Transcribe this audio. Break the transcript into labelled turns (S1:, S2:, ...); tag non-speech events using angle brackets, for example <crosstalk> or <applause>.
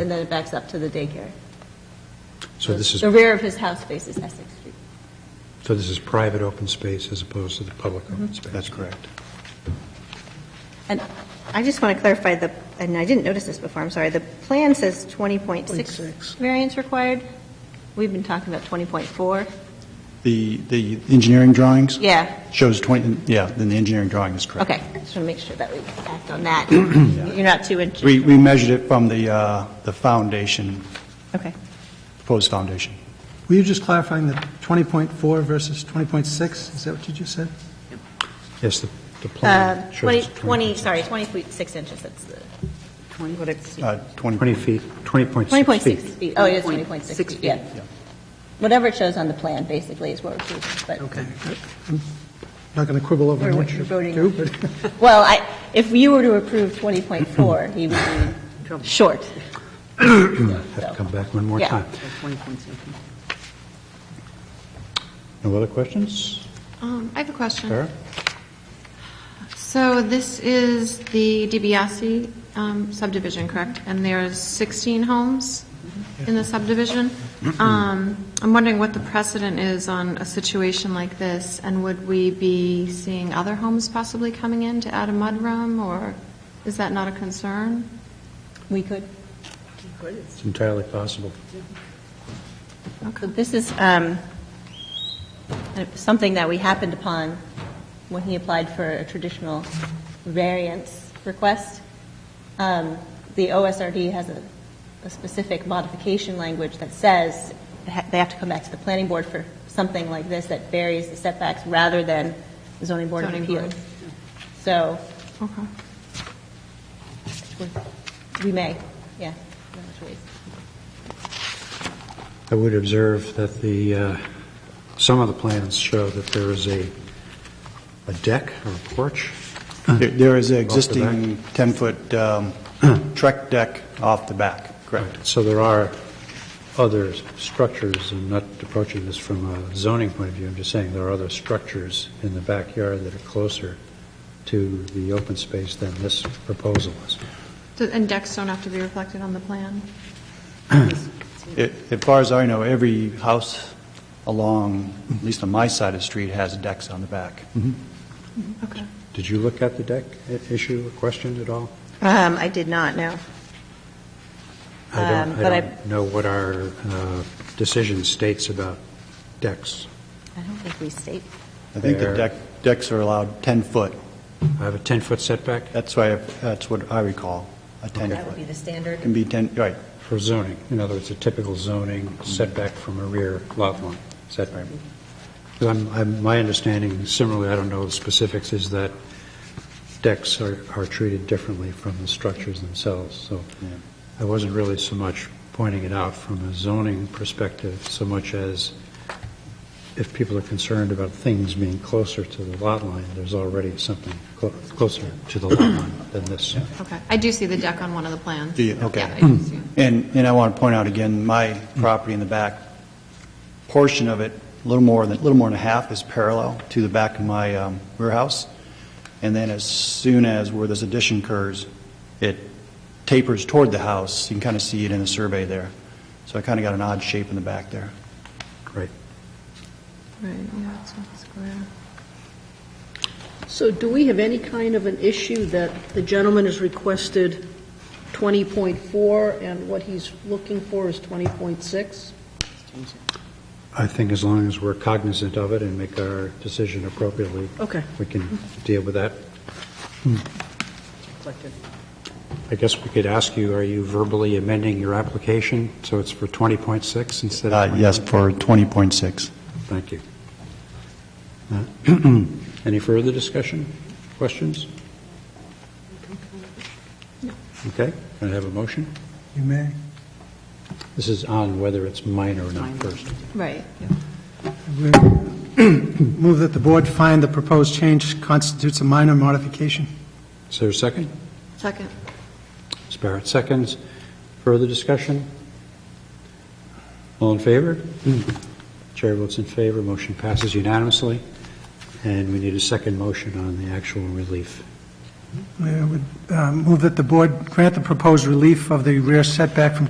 S1: and then it backs up to the daycare.
S2: So this is,
S1: The rear of his house faces Essex Street.
S2: so this is private open space as opposed to the public open space? That's correct.
S3: And I just want to clarify the, and I didn't notice this before, I'm sorry, the plan says 20.6 variance required. We've been talking about 20.4.
S4: The, the engineering drawings?
S3: Yeah,
S4: Shows 20, yeah, then the engineering drawing is correct.
S3: okay. Just want to make sure that we act on
S2: <clears throat>
S3: that. You're not too inches.
S4: We, we measured it from the, uh, the foundation,
S3: Okay.
S4: proposed foundation.
S5: Were you just clarifying the 20.4 versus 20.6? Is that what you just said?
S2: Yes, the the
S3: Uh,
S2: plan shows
S3: 20,
S2: 20...
S3: 20, sorry, 20.6 inches, that's the, what it's,
S4: Uh,
S2: 20 feet, 20.6
S3: 20.6
S2: feet.
S3: feet. Oh, it is 20.6 feet, yeah.
S4: Yeah.
S1: Whatever it shows on the plan, basically, is what we're choosing, but...
S5: Okay. I'm Not going to quibble over
S1: Or
S5: what
S1: you're
S5: you
S1: voting
S5: do,
S2: <laughs>
S5: but
S1: Well, I, if you were to approve 20.4, he would be short.
S2: Hmm, Have to come back one more
S1: Yeah.
S2: time. No other questions?
S6: Um, I have a question.
S2: Sarah?
S6: So this is the DiBiase um, subdivision, correct? And there's 16 homes in the subdivision. <clears throat> Um, I'm wondering what the precedent is on a situation like this, and would we be seeing other homes possibly coming in to add a mudroom, or is that not a concern?
S1: We could.
S2: It's entirely possible.
S1: So This is um, something that we happened upon when he applied for a traditional variance request. Um, The OSRD has a a specific modification language that says ha- they have to come back to the planning board for something like this that varies the setbacks rather than the zoning board of
S6: Zoning
S1: appeals.
S6: board.
S1: So
S6: Okay.
S1: we may, yeah. no choice.
S2: I would observe that the, uh, some of the plans show that there is a, a deck or a porch.
S4: There- There is an
S2: Off the
S4: existing 10-foot um, trek deck off the back, correct?
S2: So there are other structures, I'm not approaching this from a zoning point of view, I'm just saying there are other structures in the backyard that are closer to the open space than this proposal is.
S6: So- And decks don't have to be reflected on the plan?
S4: It- As far as I know, every house along, at least on my side of the street, has decks on the back.
S6: Okay.
S2: Did you look at the deck i- issue or question at all?
S3: um, I did not, no.
S2: I don't,
S3: Um,
S2: I
S3: but I-
S2: don't know what our uh, decision states about decks.
S3: I don't think we state,
S4: I think the
S2: There.
S4: deck, decks are allowed 10-foot.
S2: I have a 10-foot setback
S4: That's why, I- that's what I recall, a 10-foot.
S3: that would be the standard.
S4: Can be 10, right,
S2: for zoning, in other words, a typical zoning setback from a rear lot line setback. Because I'm, I'm, my understanding, similarly, I don't know the specifics, is that decks are, are treated differently from the structures themselves, so
S4: Yeah.
S2: I wasn't really so much pointing it out from a zoning perspective, so much as if people are concerned about things being closer to the lot line, there's already something clo- closer to the lot line than this.
S6: Okay. I do see the deck on one of the plans.
S4: Do you? Okay.
S6: Yeah, I do see <clears throat> it.
S4: And, and I want to point out again, my property in the back portion of it, a little more than, a little more than half is parallel to the back of my um, warehouse. And then as soon as where this addition occurs, it tapers toward the house. You can kind of see it in the survey there. So I kind of got an odd shape in the back there.
S2: Right.
S6: Right, yeah, it's not square.
S7: So do we have any kind of an issue that the gentleman has requested 20.4 and what he's looking for is 20.6?
S2: I think as long as we're cognizant of it and make our decision appropriately,
S7: Okay.
S2: we can deal with that. I guess we could ask you, are you verbally amending your application so it's for 20.6 instead of
S4: Uh,
S2: 21?
S4: Yes, for 20.6.
S2: Thank you. Uh, <clears throat> Any further discussion, questions? Okay, can I have a motion?
S5: you may.
S2: This is on whether it's minor or not first.
S1: Right.
S5: We Move that the board find the proposed change constitutes a minor modification.
S2: Is there a second?
S6: Second.
S2: Ms. Barrett seconds. Further discussion? All in favor? Chair votes in favor, motion passes unanimously, and we need a second motion on the actual relief.
S5: We would uh, move that the board grant the proposed relief of the rear setback from